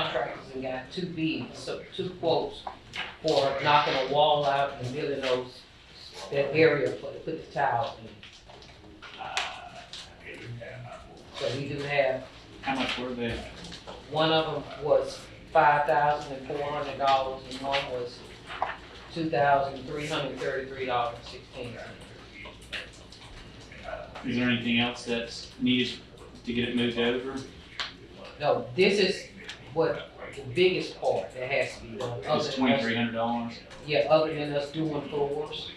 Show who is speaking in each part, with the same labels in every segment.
Speaker 1: contractors and got two bids, so two quotes for knocking a wall out and building those, that area for, to put the tiles in. So we do have,
Speaker 2: How much were they?
Speaker 1: one of them was five thousand and four hundred dollars and one was two thousand three hundred thirty-three dollars and sixteen cents.
Speaker 2: Is there anything else that's needed to get it moved over?
Speaker 1: No, this is what the biggest part that has to be done, other
Speaker 2: It's
Speaker 1: than us,
Speaker 2: twenty-three hundred dollars.
Speaker 1: yeah, other than us doing floors.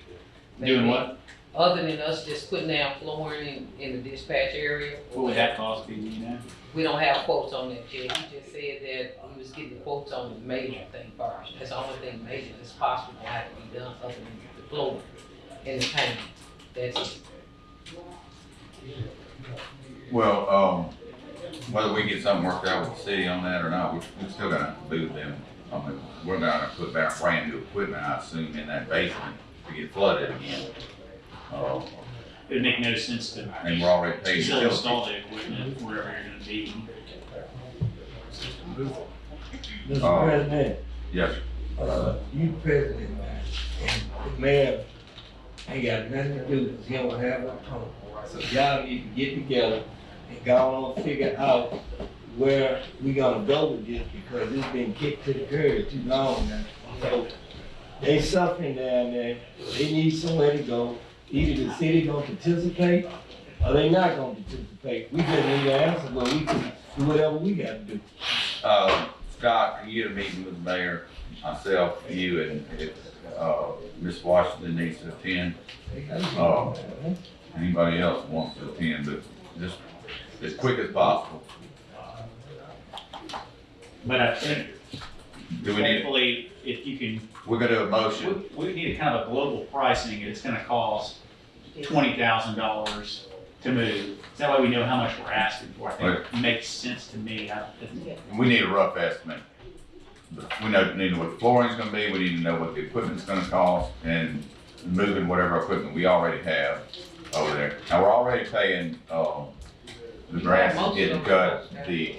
Speaker 2: Doing
Speaker 1: maybe.
Speaker 2: what?
Speaker 1: other than us just putting down flooring in, in the dispatch area.
Speaker 2: What would that cost be, do you know?
Speaker 1: We don't have quotes on that yet, he just said that he was getting quotes on the major thing first, that's the only thing major that's possible will have to be done other than the flooring and the paint. That's it.
Speaker 3: Well, um, whether we get something worked out with the city on that or not, we, we still gonna have to do them. I mean, we're gonna put back brand new equipment, I assume, in that basement to get flooded again. Uh,
Speaker 2: It'd make no sense to
Speaker 3: and we're already paid
Speaker 2: still
Speaker 3: utilities.
Speaker 2: install the equipment wherever you're gonna be.
Speaker 3: Oh.
Speaker 4: Mr. President,
Speaker 3: Yes, sir.
Speaker 4: uh, you president, man, and the mayor ain't got nothing to do, cause he don't have a phone. So y'all need to get together and go on and figure out where we gonna go with this, because it's been kicked to the curb too long now. So, they suffering down there, they need somewhere to go, either the city gonna participate, or they not gonna participate. We just need an answer, but we can do whatever we gotta do.
Speaker 3: Uh, Scott, can you get a meeting with the mayor, myself, you, and if, uh, Ms. Washington needs to attend, Oh. anybody else wants to attend, but just as quick as possible.
Speaker 2: But I think,
Speaker 3: Do we need,
Speaker 2: hopefully, if you can,
Speaker 3: we're gonna do a
Speaker 2: we,
Speaker 3: motion.
Speaker 2: we need a kind of a global pricing, it's gonna cost twenty thousand dollars to move. That way we know how much we're asking for, I think it makes sense to me, I,
Speaker 3: We need a rough estimate. We know, need to know what the flooring's gonna be, we need to know what the equipment's gonna cost, and moving whatever equipment we already have over there. Now, we're already paying, um, the grass is getting cut, the,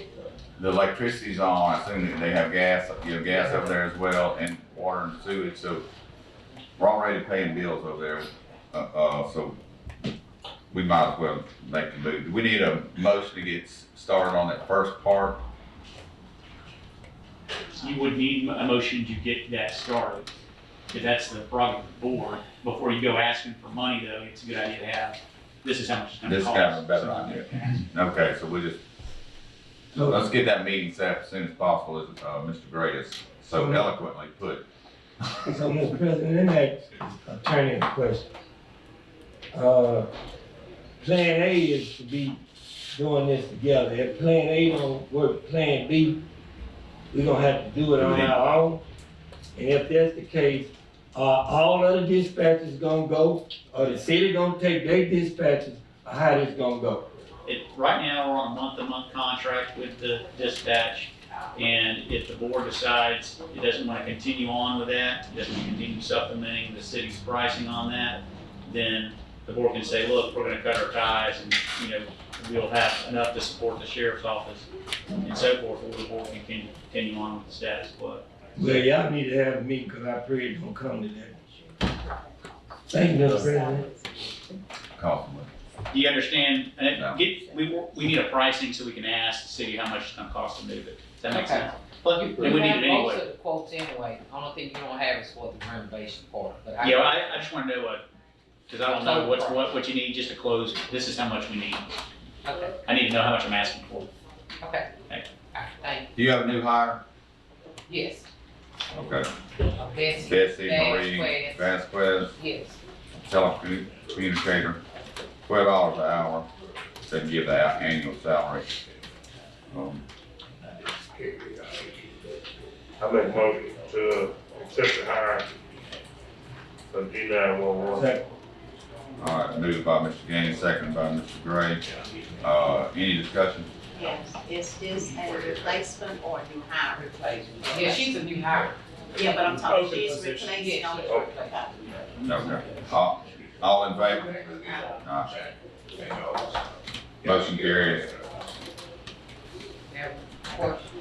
Speaker 3: the electricity's on, I assume that they have gas, you know, gas over there as well, and water and sewage, so we're already paying bills over there, uh, uh, so we might as well make the move. We need a motion to get s- started on that first part,
Speaker 2: you would need a motion to get that started. If that's the problem with the board, before you go asking for money though, it's a good idea to have, this is how much it's gonna
Speaker 3: This
Speaker 2: cost.
Speaker 3: is kind of a better idea. Okay, so we just, so let's get that meeting set up as soon as possible, as, uh, Mr. Gray has so eloquently put.
Speaker 4: So, Mr. President, let me ask attorney a question. Uh, Plan A is to be doing this together. If Plan A don't work, Plan B, we gonna have to do it on our own. And if that's the case, are all other dispatches gonna go, or the city gonna take their dispatches, or how this gonna go?
Speaker 2: It, right now, we're on a month-to-month contract with the dispatch, and if the board decides it doesn't want to continue on with that, it doesn't want to continue supplementing the city's pricing on that, then the board can say, look, we're gonna cut our ties, and, you know, we'll have enough to support the sheriff's office and so forth, or the board can con- continue on with the status quo.
Speaker 4: Well, y'all need to have a meeting, cause I pray it don't come to that. Thank you, Mr. President.
Speaker 3: Cost money.
Speaker 2: Do you understand? And
Speaker 3: No.
Speaker 2: get, we, we need a pricing so we can ask the city how much it's gonna cost to move it. Does that make
Speaker 1: Okay.
Speaker 2: sense? But, and
Speaker 1: You-
Speaker 2: we
Speaker 1: you
Speaker 2: need
Speaker 1: have
Speaker 2: it anyway.
Speaker 1: Most of the quotes anyway, only thing you don't have is for the renovation part, but I.
Speaker 2: Yeah, I, I just wanna know what, cause I don't know what's, what, what you need just to close, this is how much we need.
Speaker 1: Okay,
Speaker 2: I need to know how much I'm asking for.
Speaker 1: okay.
Speaker 2: Thank
Speaker 1: All right, thank
Speaker 3: Do you have a new hire?
Speaker 1: you, yes,
Speaker 3: Okay,
Speaker 1: Uh, Betsy,
Speaker 3: Bessie Marie Vasquez,
Speaker 1: yes,
Speaker 3: telecommunicator, twelve dollars an hour, they give that annual salary. Um,
Speaker 5: I make motion to accept the hire of D nine one one.
Speaker 4: Second.
Speaker 3: All right, moved by Mr. Gaines, second by Mr. Gray. Uh, any discussion?
Speaker 6: Yes, is this a replacement or a new hire?
Speaker 1: replacement, yeah, she's a new hire,
Speaker 6: Yeah, but I'm
Speaker 5: Open
Speaker 6: talking, she's
Speaker 5: position.
Speaker 1: yes,
Speaker 6: replacing
Speaker 1: she's
Speaker 6: on
Speaker 1: a replacement.
Speaker 3: Okay, all, all in favor? Aye. Motion carries.
Speaker 1: Now, question.